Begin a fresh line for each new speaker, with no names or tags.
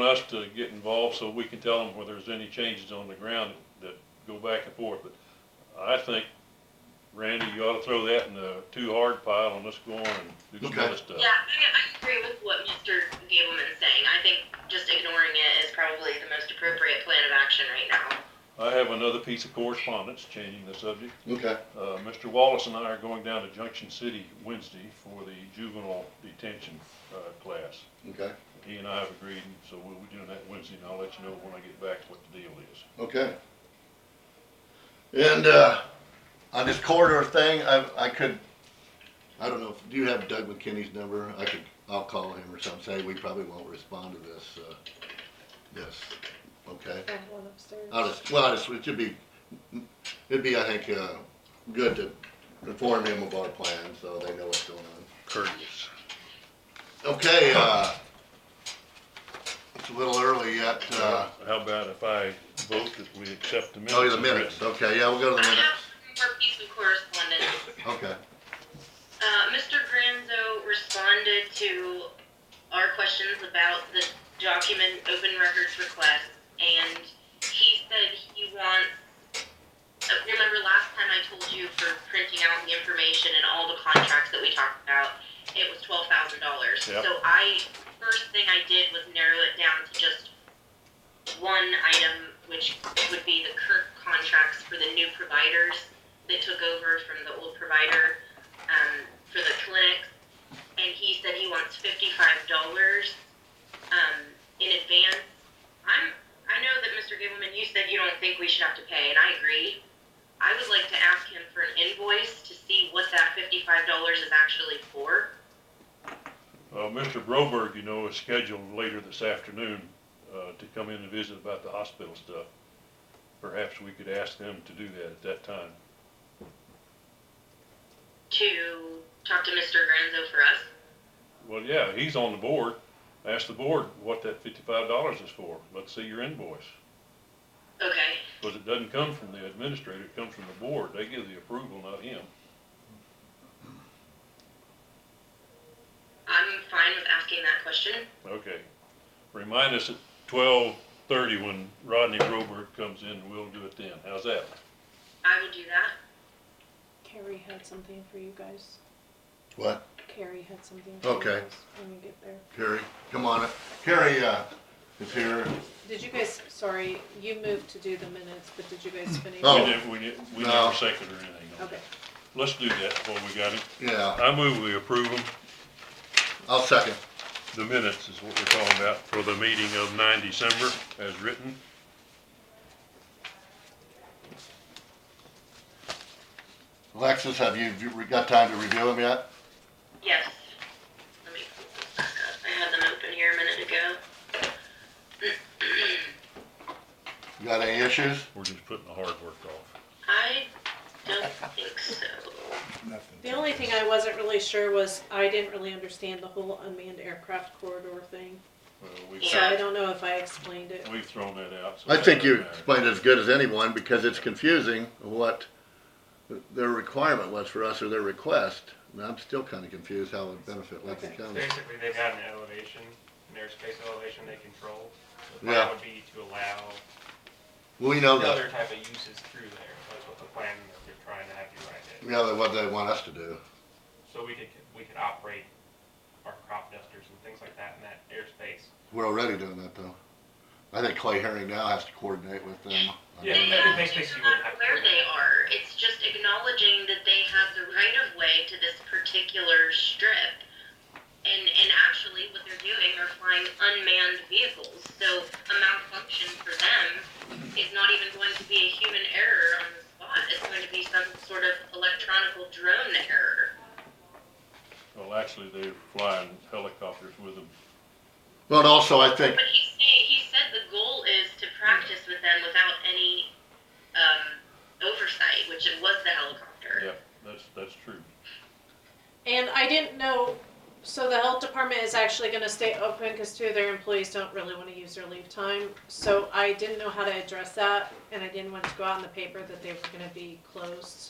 us to get involved so we can tell them where there's any changes on the ground that go back and forth, but I think, Randy, you ought to throw that in the too hard pile and let's go on and do some other stuff.
Yeah, I, I agree with what Mr. Gableman's saying. I think just ignoring it is probably the most appropriate plan of action right now.
I have another piece of correspondence changing the subject.
Okay,
Uh, Mr. Wallace and I are going down to Junction City Wednesday for the juvenile detention, uh, class.
okay,
He and I have agreed, and so we'll be doing that Wednesday, and I'll let you know when I get back what the deal is.
okay. And, uh, on this corridor thing, I, I could, I don't know, if- do you have Doug McKinney's number? I could, I'll call him or something, say we probably won't respond to this, uh, this, okay?
I have one upstairs.
I'll just, well, I just, it should be, it'd be, I think, uh, good to inform him of our plan, so they know what's going on.
courteous.
Okay, uh, it's a little early yet, uh,
How about if I vote that we accept the minutes?
oh, the
as
minutes,
written?
okay, yeah, we'll go to
I
the
have
minutes,
one more piece of correspondence.
okay.
Uh, Mr. Granzo responded to our questions about the document open records request, and he said he wants, uh, remember last time I told you for printing out the information and all the contracts that we talked about, it was twelve thousand dollars.
Yep.
So I, first thing I did was narrow it down to just one item, which would be the current contracts for the new providers that took over from the old provider um, for the clinics, and he said he wants fifty-five dollars um, in advance. I'm, I know that Mr. Gableman, you said you don't think we should have to pay, and I agree. I would like to ask him for an invoice to see what that fifty-five dollars is actually for.
Uh, Mr. Broberg, you know, is scheduled later this afternoon, uh, to come in and visit about the hospital stuff. Perhaps we could ask them to do that at that time.
To talk to Mr. Granzo for us.
Well, yeah, he's on the board. Ask the board what that fifty-five dollars is for. Let's see your invoice.
Okay.
Cause it doesn't come from the administrator, it comes from the board. They give the approval, not him.
I'm fine with asking that question.
Okay. Remind us at twelve thirty when Rodney Broberg comes in, we'll do it then. How's that?
I will do that.
Carrie had something for you guys.
What?
Carrie had something for you
Okay.
guys when you get there.
Carrie, come on up. Carrie, uh, is here.
Did you guys, sorry, you moved to do the minutes, but did you guys finish?
Oh.
We never, we ne- we
No.
never seconded or anything. on
Okay.
that. Let's do that before we got it.
Yeah,
I move we approve them.
I'll second.
The minutes is what we're talking about for the meeting of nine December as written.
Alexis, have you, have you got time to review them yet?
Yes. Let me pull this back up. I had them open here a minute ago.
You got any issues?
We're just putting the hard work off.
I don't think so.
The only thing I wasn't really sure was I didn't really understand the whole unmanned aircraft corridor thing.
Well, we've,
So
Yeah.
I don't know if I explained it.
we've thrown that out. so
I
that
think you
doesn't matter.
explained it as good as anyone because it's confusing what their requirement was for us or their request. And I'm still kind of confused how it would benefit Lincoln County.
Basically, they've got an elevation, an airspace elevation they control.
Yeah.
The plan would be to allow
We know that,
other type of uses through there. That's what the plan that they're trying to have you write
we
in.
know what they want us to do.
So we could, we could operate our crop dusters and things like that in that airspace.
We're already doing that though. I think Clay Herring now has to coordinate with them.
Yeah,
They
that-
have
makes
to
me see
know
what happened.
where they are. It's just acknowledging that they have the right of way to this particular strip. And, and actually, what they're doing are flying unmanned vehicles. So a malfunction for them is not even going to be a human error on the spot. It's going to be some sort of electronical drone error.
Well, actually, they're flying helicopters with them.
But also I think,
But he say, he said the goal is to practice with them without any um, oversight, which it was the helicopter.
Yeah, that's, that's true.
And I didn't know, so the health department is actually gonna stay open, cause two of their employees don't really wanna use their leave time. So I didn't know how to address that, and I didn't want to go out in the paper that they were gonna be closed.